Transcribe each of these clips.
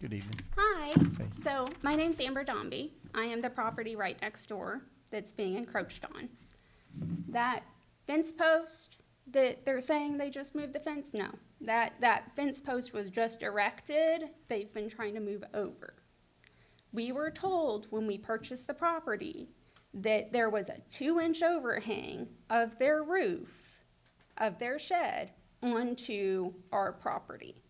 Good evening. Hi. Hey. So my name's Amber Dombey. I am the property right next door that's being encroached on. That fence post that they're saying they just moved the fence, no. That, that fence post was just erected. They've been trying to move over. We were told when we purchased the property that there was a two-inch overhang of their roof, of their shed, onto our property.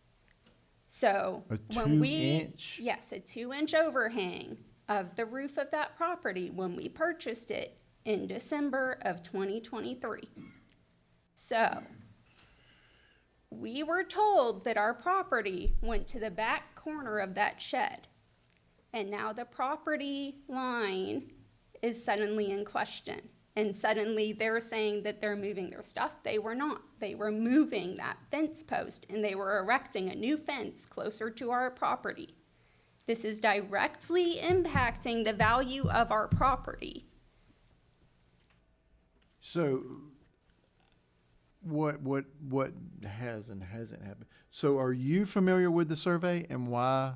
So A when we. two-inch? Yes, a two-inch overhang of the roof of that property when we purchased it in December of 2023. So, we were told that our property went to the back corner of that shed. And now the property line is suddenly in question. And suddenly they're saying that they're moving their stuff. They were not. They were moving that fence post and they were erecting a new fence closer to our property. This is directly impacting the value of our property. So what, what, what has and hasn't happened? So are you familiar with the survey and why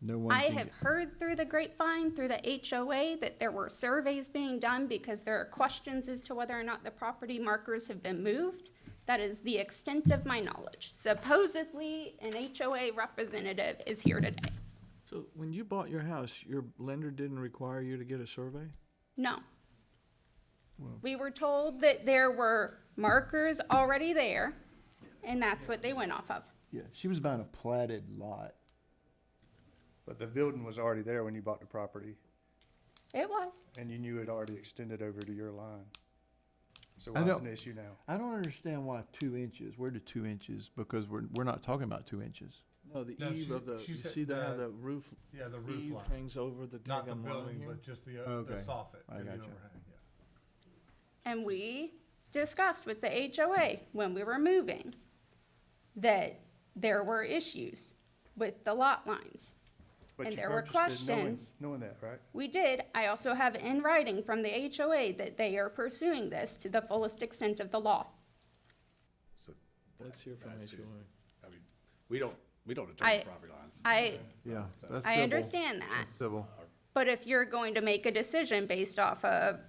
no one? I can have get- heard through the grapevine, through the HOA, that there were surveys being done because there are questions as to whether or not the property markers have been moved. That is the extent of my knowledge. Supposedly, an HOA representative is here today. So when you bought your house, your lender didn't require you to get a survey? No. We were told that there were markers already there, and that's what they went off of. Yeah, she was buying a platted lot. But the building was already there when you bought the property, It was. and you knew it already extended over to your line. So I what's don't- an issue now? I don't understand why two inches. Where did two inches? Because we're, we're not talking about two inches. No, the No, eve she- of the, she you said see that, how the- the roof Yeah, the roof eve line, hangs over the not the daggum line? building, but just the, uh, Okay. the soffit. I and the gotcha. overhang, yeah. And we discussed with the HOA when we were moving that there were issues with the lot lines. But And you there were purchased it knowing- questions. Knowing that, right? We did, I also have in writing from the HOA that they are pursuing this to the fullest extent of the law. So, Let's hear from That's it. HOA. I mean, we don't, we don't determine I- property lines. I, Yeah, that's I civil. understand that, Civil. but if you're going to make a decision based off of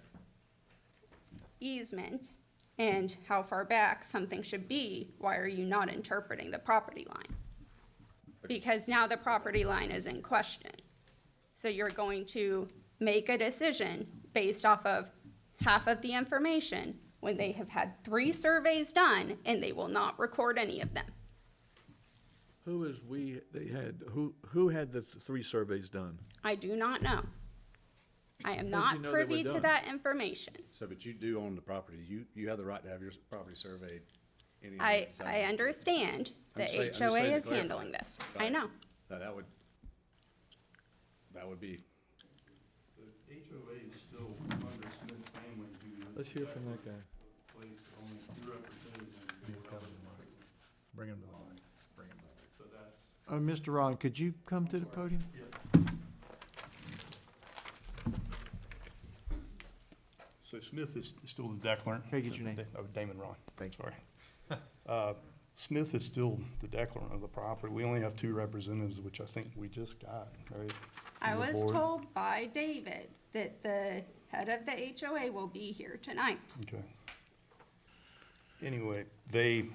easement and how far back something should be, why are you not interpreting the property line? Because now the property line is in question. So you're going to make a decision based off of half of the information when they have had three surveys done and they will not record any of them. Who is we, they had, who, who had the th- three surveys done? I do not know. I am How'd you not know they were privy to done? that information. So, but you do own the property, you, you have the right to have your s- property surveyed. any I, time. I understand the I'm say- I'm just HOA saying to is clarify. handling this. I Right. know. Now, that would, that would be, The HOA is still under Smith Family who is Let's hear from that guy. placed only two representatives. in the board. Bring him to the line, bring him to the line. So Uh, that's, Mr. Ron, could you come to the podium? so Smith is still the declarant. Can I get your name? Oh, Damon Ron. Thank Sorry. Uh, Smith is still the declarant of the property. We only have two representatives, which I think we just got, right? I From the was board. told by David that the head of the HOA will be here tonight. Okay. Anyway, they,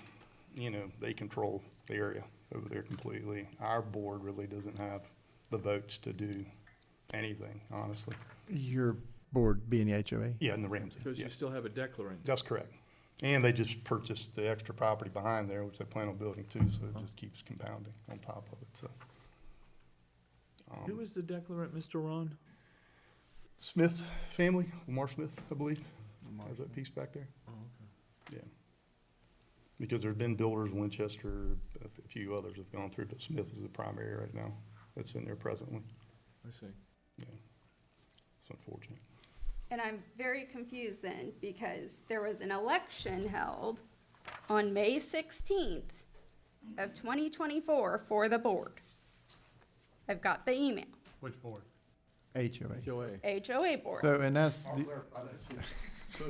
you know, they control the area over there completely. Our board really doesn't have the votes to do anything, honestly. Your board being the HOA? Yeah, in the Ramsey, Because you yes, still have a declarant. that's correct. And they just purchased the extra property behind there, which they plan on building too, so it just keeps compounding on top of it, so. Who is the declarant, Mr. Ron? Smith family, Lamar Smith, I believe, has that piece back there. Oh, Yeah. Because there's been builders, Winchester, a f- a few others have gone through, but Smith is the primary right now that's in there presently. I see. Yeah. It's unfortunate. And I'm very confused then because there was an election held on May 16th of 2024 for the board. I've got the email, Which board? HOA. HOA. HOA board. So, and that's, the- So